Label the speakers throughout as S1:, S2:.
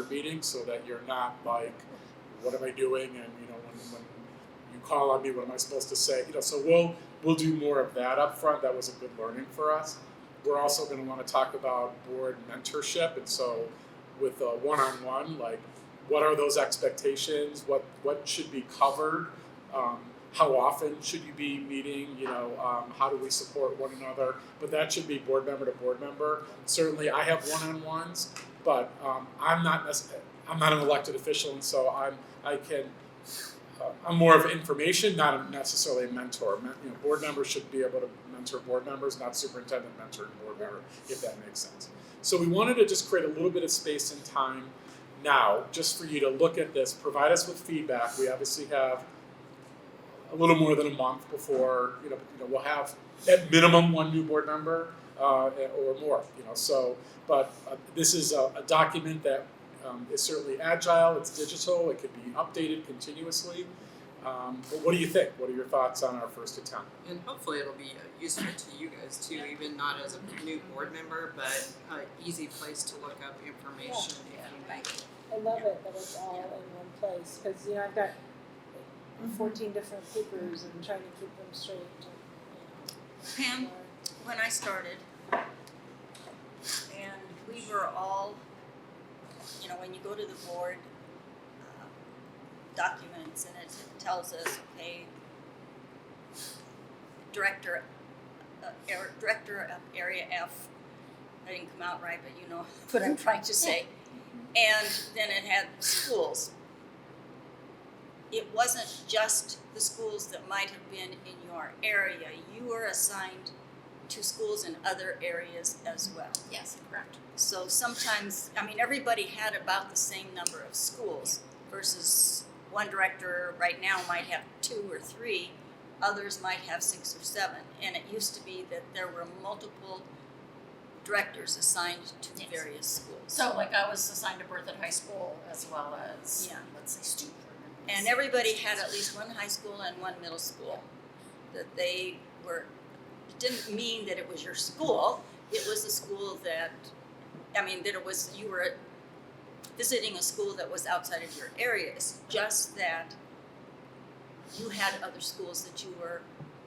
S1: meeting so that you're not like, what am I doing? And you know, when, when you call on me, what am I supposed to say? You know, so we'll we'll do more of that up front. That was a good learning for us. We're also going to want to talk about board mentorship, and so with a one-on-one, like what are those expectations? What what should be covered? Um, how often should you be meeting? You know, um, how do we support one another? But that should be board member to board member. Certainly, I have one-on-ones, but um, I'm not necess- I'm not an elected official, and so I'm I can uh, I'm more of information, not necessarily a mentor. Men- you know, board members should be able to mentor board members, not superintendent mentoring board member, if that makes sense. So we wanted to just create a little bit of space and time now, just for you to look at this, provide us with feedback. We obviously have a little more than a month before you know, you know we'll have at minimum one new board member uh, or more. You know, so but uh, this is a, a document that um, is certainly agile. It's digital. It could be updated continuously. Um, but what do you think? What are your thoughts on our first attempt?
S2: and hopefully it'll be useful to you guys too, even not as a new board member, but an easy place to look up information if you need.
S3: I love it that it's all in one place, cause you know, I've got fourteen different papers and trying to keep them straight and, you
S4: Pam,
S3: know.
S4: when I started, and we were all, you know, when you go to the board uh, documents and it tells us, okay, director, uh, air, director of area F, that didn't come out right, but you know what I'm trying to say. And then it had schools. It wasn't just the schools that might have been in your area. You were assigned to schools in other areas as well.
S5: Yes, correct.
S4: So sometimes, I mean, everybody had about the same number of schools versus one director right now might have two or three, others might have six or seven. And it used to be that there were multiple directors assigned to
S5: Yes.
S4: various schools.
S5: So like I was assigned to Berthoud High School as well as,
S4: Yeah.
S5: let's say, student. Improvement.
S4: And everybody had at least one high school and one middle school that they were, it didn't mean that it was your school. It was the school that, I mean, that it was, you were visiting a school that was outside of your area. It's just that you had other schools that you were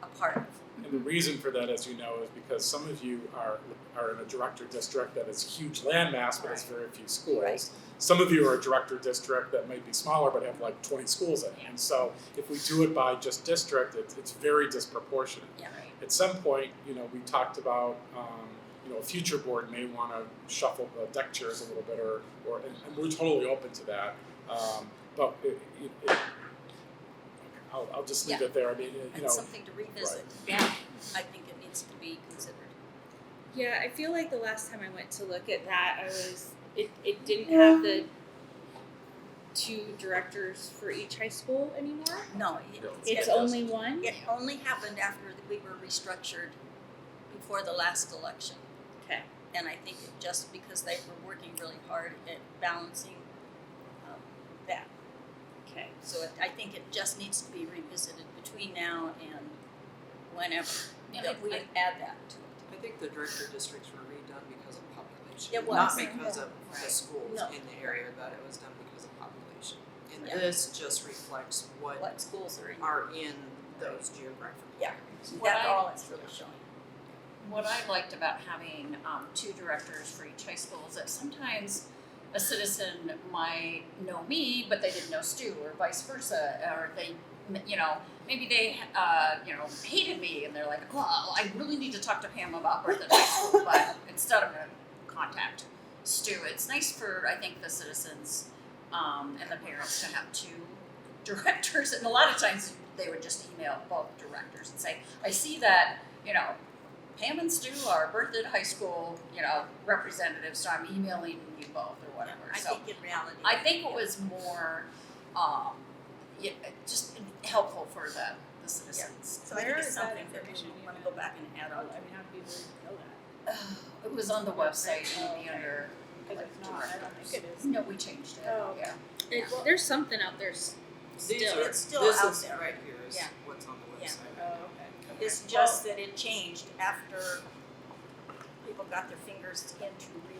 S4: a part of.
S1: And the reason for that, as you know, is because some of you are are in a director district that is a huge landmass, but has very few schools.
S4: Right.
S1: Some of you are a director district that might be smaller, but have like twenty schools in it. And so if we do it by just district, it's, it's very disproportionate.
S4: Yeah.
S1: At some point, you know, we talked about, um, you know, a future board may want to shuffle the deck chairs a little bit or, or, and, and we're totally open to that. Um, but it, it, it, I'll, I'll just leave it there. I mean, you know,
S4: It's something to revisit.
S5: Yeah.
S4: I think it needs to be considered.
S6: Yeah, I feel like the last time I went to look at that, I was it, it didn't have the two directors for each high school anymore.
S4: No, it-
S6: It's
S4: it-
S6: only one.
S4: It only happened after we were restructured before the last election.
S6: Okay.
S4: And I think it just because they were working really hard at balancing um, that.
S6: Okay.
S4: So it, I think it just needs to be revisited between now and whenever
S5: And
S4: that we
S2: I-
S4: add that to it.
S2: I think the director districts were redone because of population.
S4: It was.
S2: Not because of the
S5: Right.
S2: schools
S4: No.
S2: in the area, but it was done because of population. And
S4: Yeah.
S2: this just reflects what
S4: What schools are in?
S2: are in those geographic
S4: Yeah.
S2: areas.
S5: What
S4: That's
S5: I-
S4: all it's really showing.
S5: What I liked about having um two directors for each high school is that sometimes a citizen might know me, but they didn't know Stu or vice versa, or they, you know, maybe they, uh, you know, hated me and they're like, well, I really need to talk to Pam about Berthoud High School, but instead I'm gonna contact Stu. It's nice for, I think, the citizens um and the parents to have two directors, and a lot of times they would just email both directors and say, I see that, you know, Pam and Stu are Berthoud High School, you know, representatives, so I'm emailing you both or whatever.
S4: I
S5: so
S4: think in reality.
S5: I think it was more, um, yeah, just helpful for the, the citizens.
S4: So I
S3: Where
S4: think it's
S3: is that
S4: something that
S3: information
S4: we
S3: you
S4: wanna
S3: have?
S4: go back and add
S3: Oh, I
S4: on
S3: mean,
S4: to.
S3: how do people know that?
S5: It was on the website, it would be under,
S3: Cause if not, I don't think it is.
S5: no, we changed it,
S3: Oh.
S5: yeah.
S6: It- there's something out there. s-
S2: These
S6: Still,
S2: are,
S4: It's still
S2: this
S4: out
S2: is
S4: there.
S2: right here is
S4: Yeah.
S2: what's on the
S4: Yeah.
S2: website.
S3: Oh, okay.
S4: It's just that it changed after people got their fingers into uh,